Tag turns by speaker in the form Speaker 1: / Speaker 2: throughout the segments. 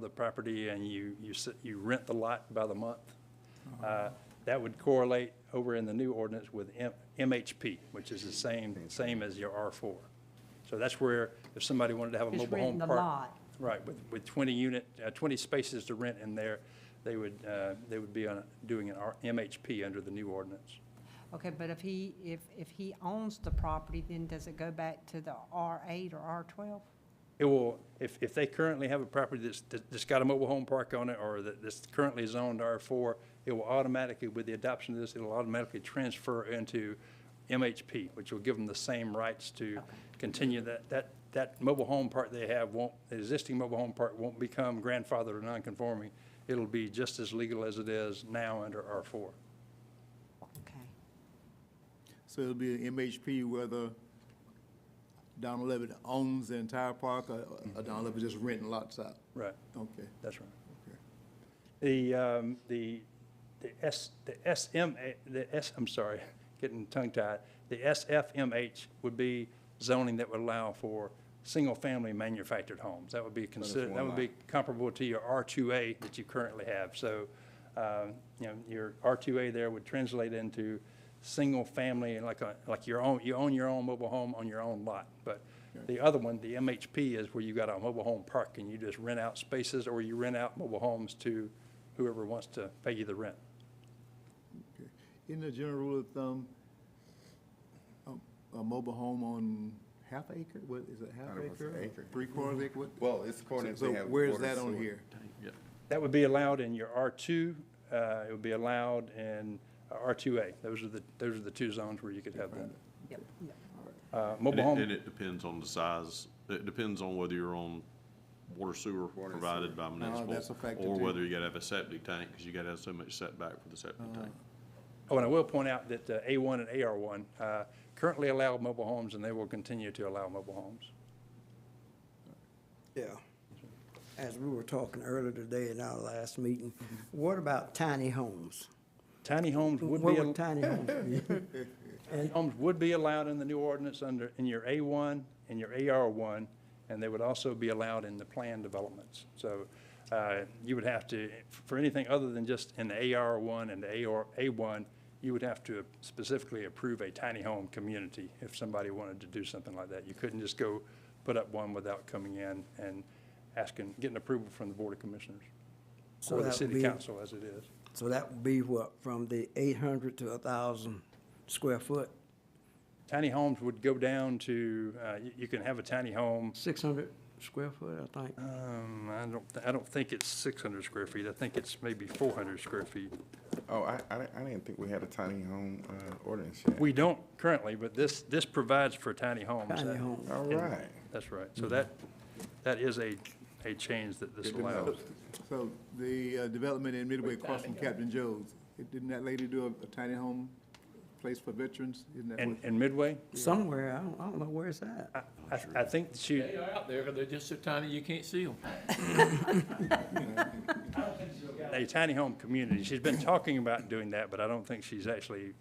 Speaker 1: the property and you, you, s- you rent the lot by the month. Uh, That would correlate over in the new ordinance with M- MHP, which is the same, same as your R4. So that's where, if somebody wanted to have a
Speaker 2: Just
Speaker 1: mobile home
Speaker 2: renting the
Speaker 1: park.
Speaker 2: lot.
Speaker 1: Right, with, with 20 unit, uh, 20 spaces to rent in there, they would, uh, they would be on, doing an R- MHP under the new ordinance.
Speaker 2: Okay, but if he, if, if he owns the property, then does it go back to the R8 or R12?
Speaker 1: It will, if, if they currently have a property that's, that's got a mobile home park on it, or that, that's currently zoned R4, it will automatically, with the adoption of this, it'll automatically transfer into MHP, which will give them the same rights to continue that, that, that mobile home park they have won't, the existing mobile home park won't become grandfathered or non-conforming. It'll be just as legal as it is now under R4.
Speaker 2: Okay.
Speaker 3: So it'll be an MHP whether Don Levitt owns the entire park or
Speaker 4: Mm-hmm.
Speaker 3: or Don Levitt just renting lots out?
Speaker 1: Right,
Speaker 3: Okay,
Speaker 1: that's right.
Speaker 3: okay.
Speaker 1: The, um, the, the S, the SM, the S, I'm sorry, getting tongue tied. The SFMH would be zoning that would allow for single-family manufactured homes. That would be considered, that would be comparable to your R2A that you currently have. So, um, you know, your R2A there would translate into single-family, like a, like your own, you own your own mobile home on your own lot. But the other one, the MHP, is where you got a mobile home park and you just rent out spaces or you rent out mobile homes to whoever wants to pay you the rent.
Speaker 3: okay. Isn't the general rule of thumb, a, a mobile home on half acre, what, is it half
Speaker 4: Thought it was
Speaker 3: acre?
Speaker 4: an
Speaker 3: or
Speaker 4: acre.
Speaker 3: Three quarters acre, what?
Speaker 4: Well, it's according
Speaker 3: So
Speaker 4: to have.
Speaker 3: where's
Speaker 4: water,
Speaker 3: that on
Speaker 4: sewer.
Speaker 3: here?
Speaker 1: That would be allowed in your R2, uh, it would be allowed in uh, R2A. Those are the, those are the two zones where you could have that.
Speaker 2: Yep, yep.
Speaker 1: Uh,
Speaker 5: And
Speaker 1: Mobile
Speaker 5: it- And
Speaker 1: home,
Speaker 5: it depends on the size, it depends on whether you're on water sewer
Speaker 4: Water
Speaker 5: provided
Speaker 4: sewer.
Speaker 5: by municipal.
Speaker 3: that's a factor
Speaker 5: Or
Speaker 3: too.
Speaker 5: whether you gotta have a septic tank, because you gotta have so much setback for the septic tank.
Speaker 1: oh, and I will point out that uh, A1 and AR1 uh, currently allow mobile homes and they will continue to allow mobile homes.
Speaker 6: Yeah. As we were talking earlier today in our last meeting, what about tiny homes?
Speaker 1: Tiny homes would be.
Speaker 6: What
Speaker 1: al-
Speaker 6: would tiny homes be?
Speaker 1: Homes would be allowed in the new ordinance under, in your A1 and your AR1, and they would also be allowed in the planned developments. So uh, you would have to, for anything other than just in the AR1 and the AR, A1, you would have to specifically approve a tiny home community if somebody wanted to do something like that. You couldn't just go put up one without coming in and asking, getting approval from the Board of Commissioners
Speaker 6: So
Speaker 1: or
Speaker 6: that
Speaker 1: the
Speaker 6: would
Speaker 1: city
Speaker 6: be-
Speaker 1: council as it is.
Speaker 6: So that would be what, from the eight hundred to a thousand square foot,
Speaker 1: Tiny homes would go down to, uh, you- you can have a tiny home
Speaker 6: six hundred square foot, I think?
Speaker 1: Um, I don't, thi- I don't think it's six hundred square feet. I think it's maybe four hundred square feet.
Speaker 4: Oh, I, I, di- I didn't think we had a tiny home, uh, ordinance yet.
Speaker 1: We don't currently, but this, this provides for tiny homes.
Speaker 6: Tiny
Speaker 1: That- Uh,
Speaker 6: homes.
Speaker 4: All right.
Speaker 1: That's right. So that, that is a, a change that this
Speaker 4: Good to know.
Speaker 1: allows.
Speaker 3: So the uh, development in Midway across from Captain Joe's, it- didn't that lady do a- a tiny home place for veterans? Isn't that
Speaker 1: And,
Speaker 3: what-
Speaker 1: and Midway,
Speaker 6: Somewhere, I don't, I don't know where's that.
Speaker 1: I, I- I think she,
Speaker 7: They are out there, but they're just so tiny you can't see them.
Speaker 1: a tiny home community, she's been talking about doing that, but I don't think she's actually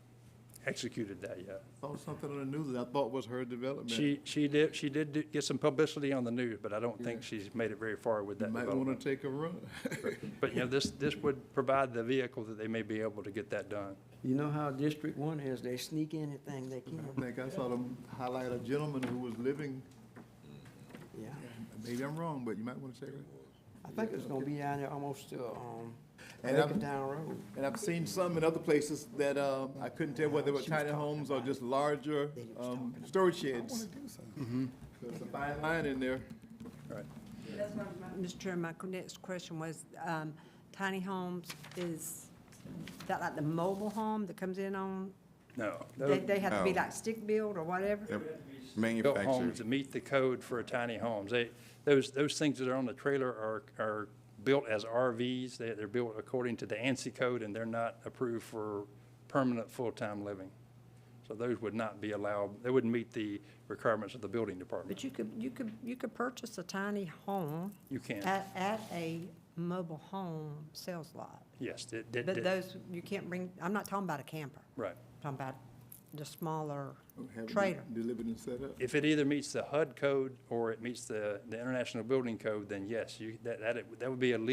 Speaker 1: executed that yet.
Speaker 3: Saw something on the news that I thought was her development.
Speaker 1: She, she did, she did do- get some publicity on the news, but I don't think she's made it very far with
Speaker 3: You
Speaker 1: that
Speaker 3: Might
Speaker 1: development.
Speaker 3: want to take a run.
Speaker 1: But, you know, this, this would provide the vehicle that they may be able to get that done.
Speaker 6: You know how District One is, they sneak anything they can,
Speaker 3: I think I saw them highlight a gentleman who was living,
Speaker 6: yeah.
Speaker 3: maybe I'm wrong, but you might want to check it.
Speaker 6: I think it's gonna be down there almost to, um,
Speaker 3: And I'm-
Speaker 6: Lincoln Down Road.
Speaker 3: And I've seen some in other places that uh, I couldn't tell whether they were tiny homes or just larger
Speaker 6: They was
Speaker 3: um,
Speaker 6: talking about-
Speaker 3: storage sheds. There's a fine line in there.
Speaker 2: Mr. Chair, my next question was, um, tiny homes, is that like the mobile home that comes in on,
Speaker 1: No.
Speaker 2: they, they have to be
Speaker 4: No.
Speaker 2: like stick-built or whatever?
Speaker 4: They're
Speaker 1: Built homes
Speaker 4: Manufactured.
Speaker 1: to meet the code for tiny homes. They, those, those things that are on the trailer are, are built as RVs. They, they're built according to the ANSI code and they're not approved for permanent, full-time living. So those would not be allowed, they wouldn't meet the requirements of the building department.
Speaker 2: But you could, you could, you could purchase a tiny home
Speaker 1: You can,
Speaker 2: at, at a mobile home sales lot.
Speaker 1: yes. that- that-
Speaker 2: But
Speaker 1: that-
Speaker 2: those, you can't bring, I'm not talking about a camper.
Speaker 1: Right.
Speaker 2: I'm Talking about the smaller
Speaker 3: Have it
Speaker 2: trailer.
Speaker 3: Delivered and set up.
Speaker 1: If it either meets the HUD code or it meets the, the International Building Code, then yes, you, that, that, that would be a legal